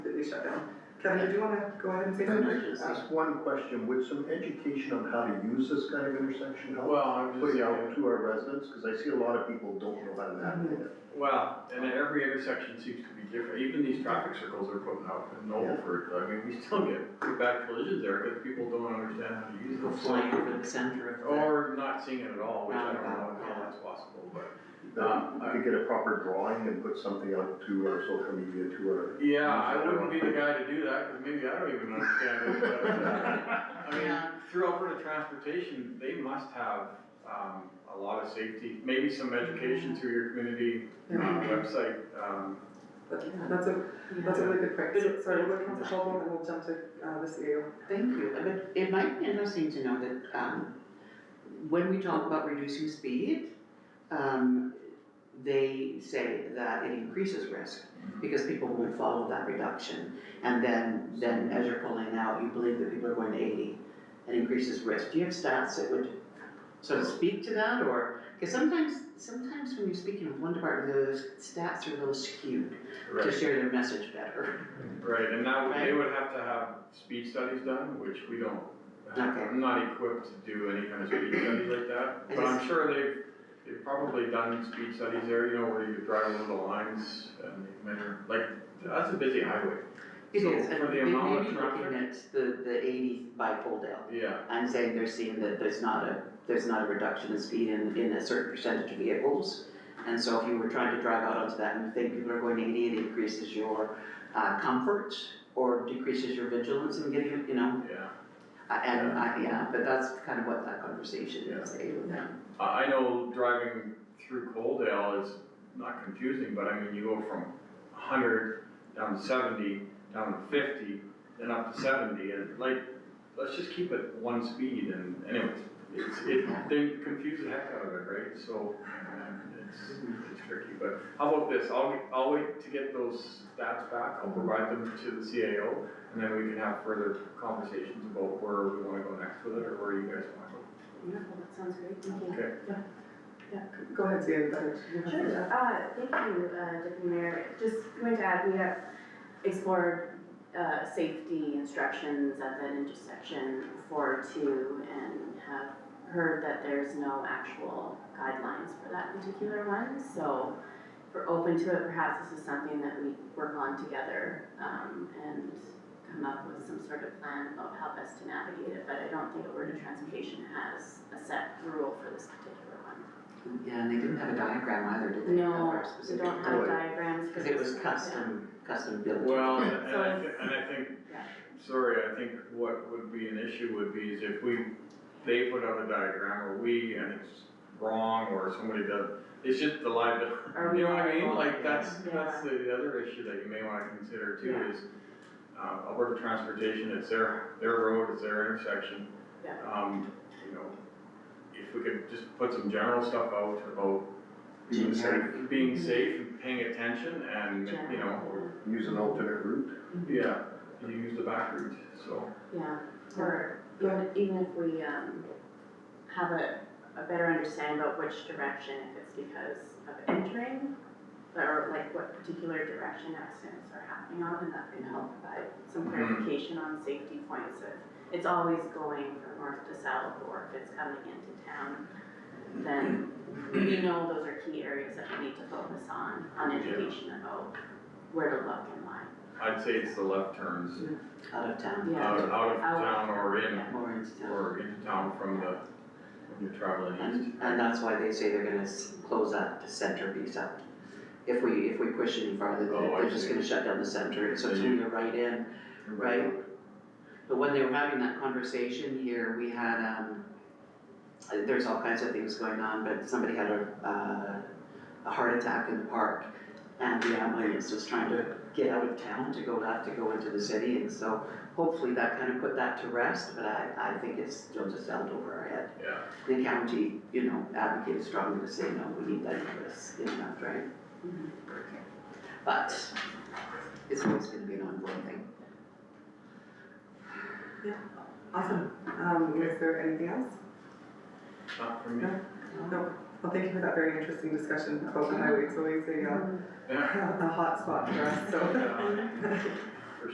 Kevin, do you wanna go ahead and say Can something? I just ask one question, would some education on how to use this kind of intersection help? Well, I'm just, Put it yeah, out to our residents, cause I see a lot of people don't know how to navigate Mm-hmm. it. well, and then every intersection seems to be different, even these traffic circles are putting out in Nobleford, I mean, we still get pretty bad collisions there, because people don't understand how to use Go them. flying over the center of the, Or not seeing it at all, which I don't know how that's possible, but, uh, Now, we could get a proper drawing and put something out to our social media, to our. yeah, I wouldn't be the guy to do that, because maybe I don't even understand it, but, uh, I mean, Yeah. through Alberta Transportation, they must have, um, a lot of safety, maybe some education through your community, uh, website, um, But yeah, that's a, that's a really good point, So- sorry, we'll go to Council Sheldon and we'll jump to, uh, the CEO. thank you, And it, it might be interesting to know that, um, when we talk about reducing speed, um, they say that it increases risk, because people won't follow that reduction. And then, then as you're pulling out, you believe that people are going to eighty, and increases risk. Do you have stats that would sort of speak to that, or, because sometimes, sometimes when you're speaking with one department, those stats are a little skewed right? to share their message better. Right, and that, would- they Right. would have to have speed studies done, which we don't, Okay. I'm not equipped to do any kind of speed studies like that. I But I'm just- sure they've, they've probably done speed studies there, you know, where you drive along the lines and they measure, like, that's a busy highway. It So is, and for the they may amount be of looking traffic, at the, the eighty by Coaldale, yeah, I'm saying they're seeing that there's not a, there's not a reduction in speed in, in a certain percentage of vehicles. And so if you were trying to drive out onto that and you think people are going eighty, it increases your, uh, comfort or decreases your vigilance in getting, you know, yeah. uh, and, uh, yeah, but that's kind of what that conversation is, eh, with them. I, I know driving through Coaldale is not confusing, but I mean, you go from hundred down to seventy, down to fifty, then up to seventy, and like, let's just keep it one speed and anyways, it's, it, they confuse the heck out of it, right? So, um, it's, it's tricky, but how about this, I'll, I'll wait to get those stats back, I'll provide them to the CAO, and then we can have further conversations about where we wanna go next with it, or where you guys wanna go. Wonderful, that sounds great, thank you. Okay. Go ahead, CEO, go ahead. Sure, uh, thank you, uh, Deputy Mayor, just going to add, we have explored, uh, safety instructions at that intersection for two and have heard that there's no actual guidelines for that particular one, so if we're open to it, perhaps this is something that we work on together, um, and come up with some sort of plan about how best to navigate it, but I don't think Alberta Transportation has a set rule for this particular one. Yeah, and they didn't have a diagram either, did they? Of No, our we specific- don't have diagrams. for Cause it this. was custom, custom built. Well, and So I, thi- and I think, Yeah. sorry, I think what would be an issue would be is if we, they put out a diagram or we, and it's wrong, or somebody does, it's just the liability. Yeah. Are we You know what I mean, liable? like, that's, Yeah. that's the other issue that you may wanna consider too Yeah. is, uh, Alberta Transportation, it's their, their road, it's their intersection. Yeah. Um, you know, if we could just put some general stuff out about being safe, Generic. being safe and paying attention and, you know, General, or Use an alternate route. yeah, you use the back route, so. Yeah, or even, even if we, um, have a, a better understanding about which direction, if it's because of entering, or like what particular direction accidents are happening on, and that can help provide some Mhm. clarification on safety points of, it's always going from north to south, or if it's coming into town, then we know those are key areas that we need to focus on, on education about where to look and why. I'd say it's the left turns, Out of town. Yeah, out, out of Out. town or in, More into town. or into town from the, when you're traveling east. And, and that's why they say they're gonna s- close that center piece up. If we, if we push any farther, they- Oh, I they're just see. gonna shut down the center, so it's Then you- gonna go right in. Right. But when they were having that conversation here, we had, um, uh, there's all kinds of things going on, but somebody had a, uh, a heart attack in the park. And the ambulance was trying to get out of town to go, have to go into the city, and so hopefully that kind of put that to rest, but I, I think it's still just held over our head Yeah, the county, you know, advocated strongly to say, no, we need that interest in that, right? Mhm. But it's always gonna be an ongoing thing. Awesome, um, is there anything else? not from me. No, well, thank you for that very interesting discussion about the highway, it's always a, uh, Yeah. a hot spot for us, so. Uh,